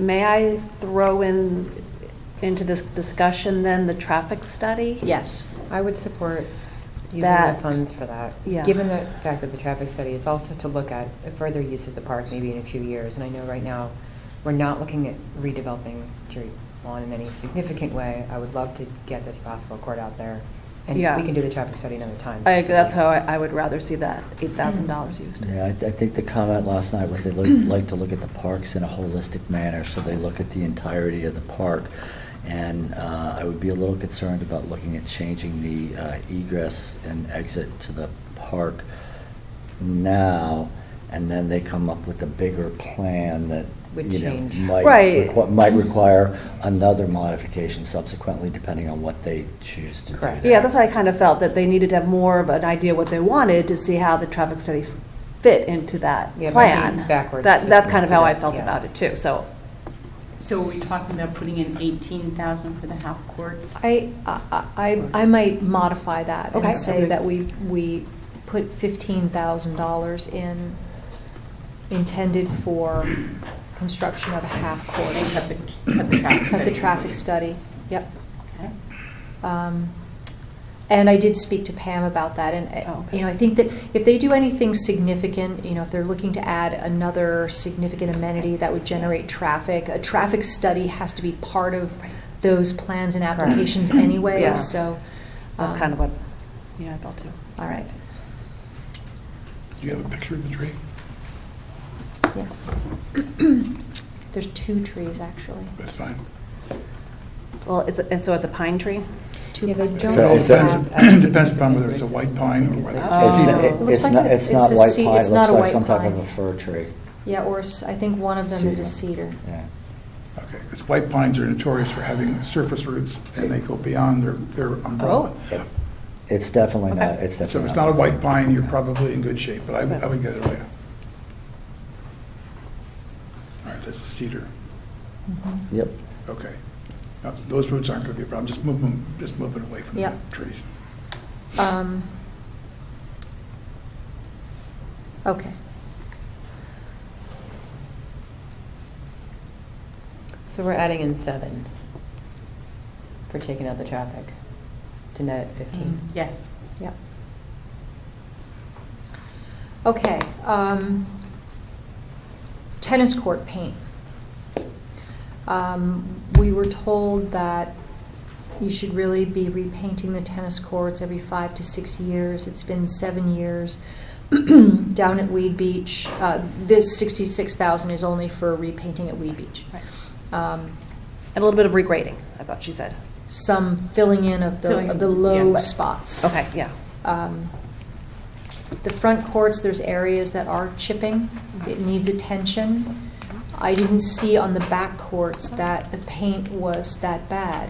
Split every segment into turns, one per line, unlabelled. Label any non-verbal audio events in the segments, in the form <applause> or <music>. May I throw in, into this discussion then, the traffic study?
Yes.
I would support using the
That-
funds for that.
Yeah.
Given the fact that the traffic study is also to look at a further use of the park maybe in a few years. And I know right now, we're not looking at redeveloping Drury Lawn in any significant way. I would love to get this basketball court out there. And we
Yeah.
can do the traffic study another time.
I, that's how I, I would rather see that, eight thousand dollars used.
Yeah, I, th- I think the comment last night was
<clears throat>
they look- like to look at the parks in a holistic manner, so they look at the entirety of the park. And uh, I would be a little concerned about looking at changing the uh, egress and exit to the park now, and then they come up with a bigger plan that,
Would
you know,
change.
might
Right.
requi- Might require another modification subsequently, depending on what they choose to do
Correct.
Yeah, that's why I kind of felt that they needed to have more of an idea what they wanted to see how the traffic study fit into that
Yeah, by
plan.
being backwards
That,
is
that's kind of how I
what-
felt
yes.
about it too, so.
So are we talking about putting in eighteen thousand for the half court?
I, I, I- I might modify that
Okay.
and say
Okay.
that we, we put fifteen thousand dollars in, intended for construction of a half
And
court.
cut the, cut the traffic
Cut the
study.
traffic study, yep.
Okay.
Um, And I did speak to Pam about that, and,
Oh,
uh,
okay.
you know, I think that if they do anything significant, you know, if they're looking to add another significant amenity that would generate traffic, a traffic study has to be part of those plans and
Correct.
applications anyway,
Yeah.
so.
That's
um,
kind of what, yeah, I felt too.
All right,
Do you have a picture of the tree?
yes. <clears throat> There's two trees, actually.
That's fine.
Well, it's, a- and so it's a pine tree?
Two
Yeah, they
pine
don't
trees.
So
It
it's a-
<clears throat> depends, depends upon whether it's a white pine or whether
Oh.
It's-
it's
It
it-
looks
It's
like
not,
a-
it's
it's
not
a
white
ce-
pine,
it's
it
not
looks
a
like
white
some type
pine.
of a fir tree.
Yeah, or s- I think one of them is a cedar.
Yeah.
Okay, because white pines are notorious for having surface roots, and they go beyond their, their umbrella.
It- It's definitely
Okay.
not, it's
So if
definitely
it's
not.
not a white pine, you're probably in good shape, but I would, I would get it away. All right, that's a cedar,
Yep,
okay. Now, Those roots aren't going to be a problem, just move them, just move it away from the
Yeah.
trees.
Um, Okay.
So we're adding in seven for taking out the traffic to net fifteen.
Mm.
Yes.
Yep. Okay, um, tennis court paint. Um, we were told that you should really be repainting the tennis courts every five to six years. It's been seven years. <clears throat> Down at Weed Beach, uh, this sixty-six thousand is only for repainting at Weed Beach.
Right.
Um,
And a little bit of regrading, I thought she said.
some filling in of
Filling
the, of
in,
the
yeah,
low
right.
spots.
Okay, yeah.
Um, The front courts, there's areas that are chipping, it needs attention. I didn't see on the back courts that the paint was that bad.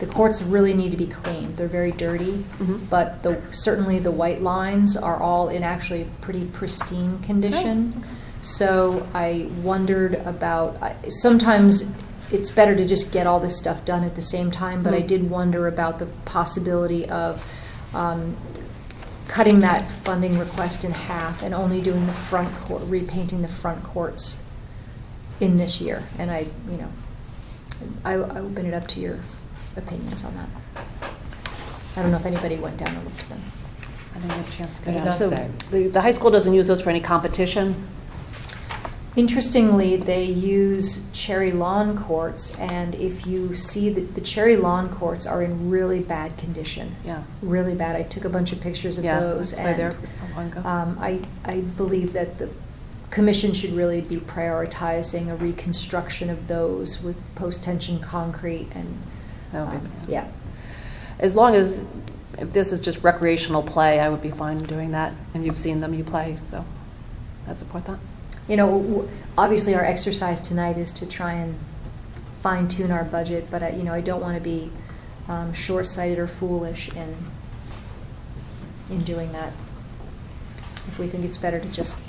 The courts really need to be cleaned, they're very dirty,
Mhm.
but the, certainly the white lines are all in actually pretty pristine condition. So I wondered about, I- sometimes it's better to just get all this stuff done at the same time, but I
Mhm.
did wonder about the possibility of um, cutting that funding request in half and only doing the front court, repainting the front courts in this year. And I, you know, I I open it up to your opinions on that. I don't know if anybody went down and looked at them.
I didn't get a chance to
I
go
did
down.
not
So
say.
the, the high school doesn't use those for any competition?
Interestingly, they use cherry lawn courts, and if you see that the cherry lawn courts are in really bad condition,
Yeah.
really bad. I took a bunch of pictures of
Yeah,
those,
I played
and
there a while ago.
um, I I believe that the commission should really be prioritizing a reconstruction of those with post tension concrete and
That would be-
um, yeah.
As long as, if this is just recreational play, I would be fine doing that. And you've seen them, you play, so I support that.
You know, w- obviously our exercise tonight is to try and fine tune our budget, but I, you know, I don't want to be um, short sighted or foolish in in doing that. If we think it's better to just,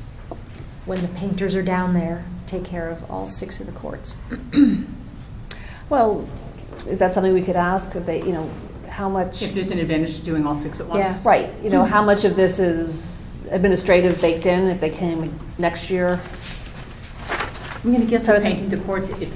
when the painters are down there, take care of all six of the courts.
Well, is that something we could ask, if they, you know, how much?
If there's an advantage to doing all six at once?
Yeah.
Right, you know, how much of this is administrative baked in, if they came next year?
I'm gonna guess
So
we're
I think-
painting the courts, it